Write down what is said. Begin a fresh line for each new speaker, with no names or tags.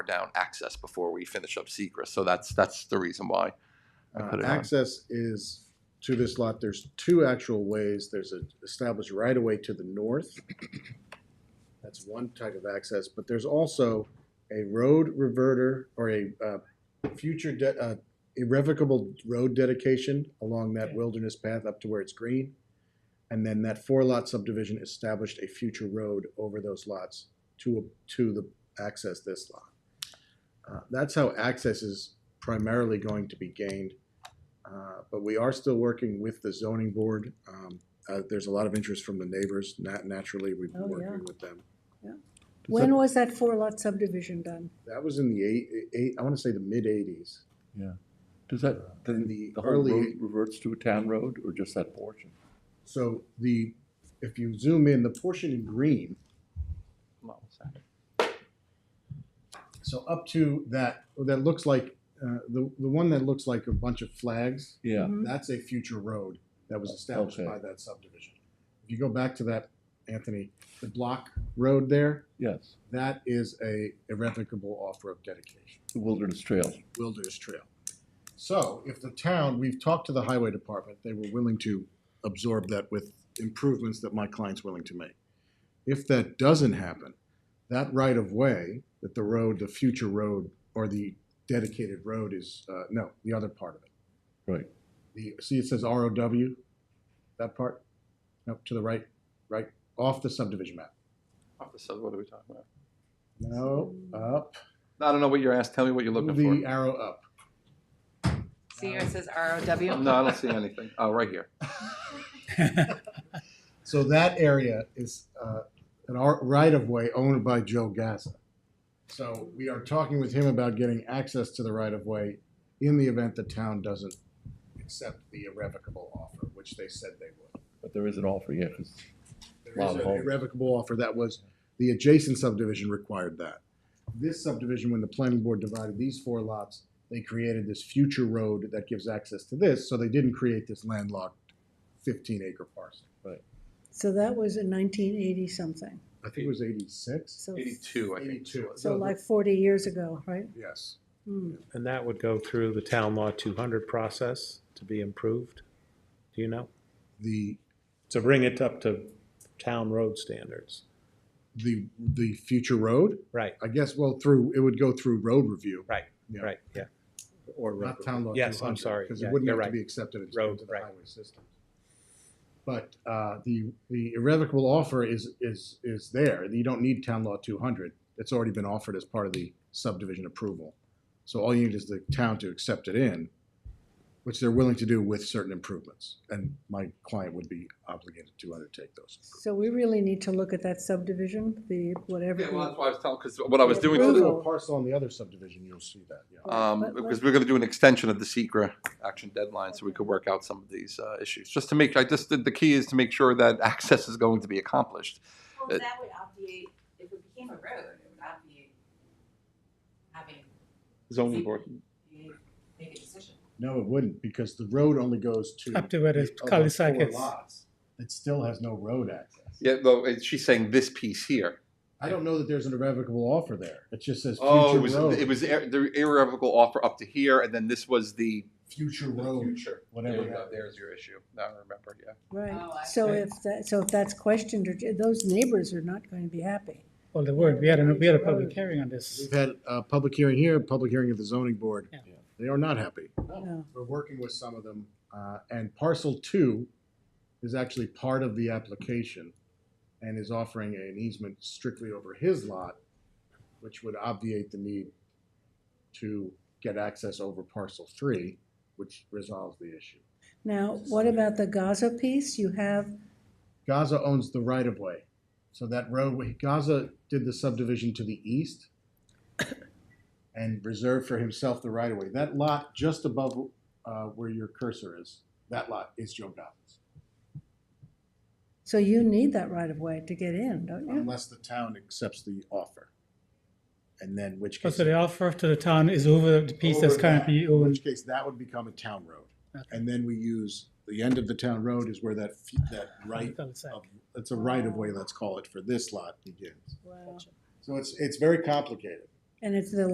down access before we finish up secret. So that's, that's the reason why. I
Uh,
put it on.
Access is to this lot, there's two actual ways. There's a established right of way to the north. That's one type of access, but there's also a road reverter or a uh, future de- uh, irrevocable road dedication along that wilderness path up to where it's green. And then that four lot subdivision established a future road over those lots to, to the access this lot. Uh, That's how access is primarily going to be gained. Uh, But we are still working with the zoning board. Um, uh, There's a lot of interest from the neighbors. Nat- Naturally, we've been
Oh, yeah.
working with them.
When was that four lot subdivision done?
That was in the eight, eight I want to say the mid 80s.
Does that,
In
then
the
the whole
early-
road reverts to a town road or just that portion?
So the, if you zoom in, the portion in green, so up to that, that looks like, uh, the, the one that looks like a bunch of flags,
Yeah,
Mhm.
that's a future road that was established
Okay.
by that subdivision. If you go back to that, Anthony, the block road there,
yes,
that is a irrevocable off-road dedication.
the Wilderness Trail.
Wilderness Trail. So if the town, we've talked to the highway department, they were willing to absorb that with improvements that my client's willing to make. If that doesn't happen, that right of way, that the road, the future road, or the dedicated road is, uh, no, the other part of it.
Right.
The, see, it says ROW, that part, up to the right, right, off the subdivision map.
So what are we talking about?
No, up,
I don't know what you're asked. Tell me what you're
move
looking
the
for.
arrow up.
See where it says ROW?
No, I don't see anything. Oh, right here.
So that area is uh, an ar- right of way owned by Joe Gaza. So we are talking with him about getting access to the right of way in the event the town doesn't accept the irrevocable offer, which they said they would.
But there is an offer, yeah, 'cause-
There is
Wow.
an irrevocable offer that was, the adjacent subdivision required that. This subdivision, when the planning board divided these four lots, they created this future road that gives access to this, so they didn't create this landlocked fifteen acre parcel.
So that was in nineteen eighty something,
I think it was eighty-six?
so,
Eighty-two, I think.
Eighty-two.
so like forty years ago, right?
Yes.
Hmm.
And that would go through the town law two hundred process to be improved, do you know?
The,
To bring it up to town road standards,
the, the future road,
right,
I guess, well, through, it would go through road review.
Right,
Yeah.
right, yeah. Or road.
Not town law.
Yes, I'm sorry,
Because
Yeah,
it wouldn't
you're
have to
right.
be accepted into
Road,
into the
right.
highway system. But, uh, the, the irrevocable offer is, is, is there. You don't need town law two hundred. It's already been offered as part of the subdivision approval. So all you need is the town to accept it in, which they're willing to do with certain improvements. And my client would be obligated to undertake those.
So we really need to look at that subdivision, the whatever.
Yeah, well, that's
we-
why I was telling, because what I was doing,
If you
to
do
the-
a parcel on the other subdivision, you'll see that, yeah.
um,
Let- let-
because we're gonna do an extension of the secret action deadline, so we could work out some of these, uh, issues. Just to make, I just, the the key is to make sure that access is going to be accomplished.
Well, that would obviate, if it became a road, it would obviate having,
Zoning
board.
board.
you make a decision.
No, it wouldn't, because the road only goes to.
Up to where it's
the other
cul-de-sac
four
is.
lots. It still has no road access.
Yeah, though, it- she's saying this piece here.
I don't know that there's an irrevocable offer there. It just says
Oh,
future
it was, it
road,
was ir- the irrevocable offer up to here, and then this was the.
future road, whatever. that-
There's your issue. Now I remember, yeah.
Oh, I
Right, so
see.
if that, so if that's questioned, or- those neighbors are not going to be happy.
Well, the word, we had, a- we had a public hearing on this.
We've had a public hearing here, a public hearing at the zoning board.
Yeah.
They are not happy.
No.
We're working with some of them, uh, and parcel two is actually part of the application and is offering an easement strictly over his lot, which would obviate the need to get access over parcel three, which resolves the issue.
Now, what about the Gaza piece? You have,
Gaza owns the right of way. So that roadway, Gaza did the subdivision to the east and reserved for himself the right of way. That lot just above uh, where your cursor is, that lot is Joe Gaza's.
so you need that right of way to get in, don't you?
Unless the town accepts the offer. And then which case.
Oh, So the offer to the town is over the piece that's
over that,
currently
In
owned.
which case, that would become a town road.
Okay.
And then we use, the end of the town road is where that, fe- that right,
Cul-de-sac.
of- it's a right of way, let's call it, for this lot begins.
Wow.
So it's, it's very complicated.
And it's the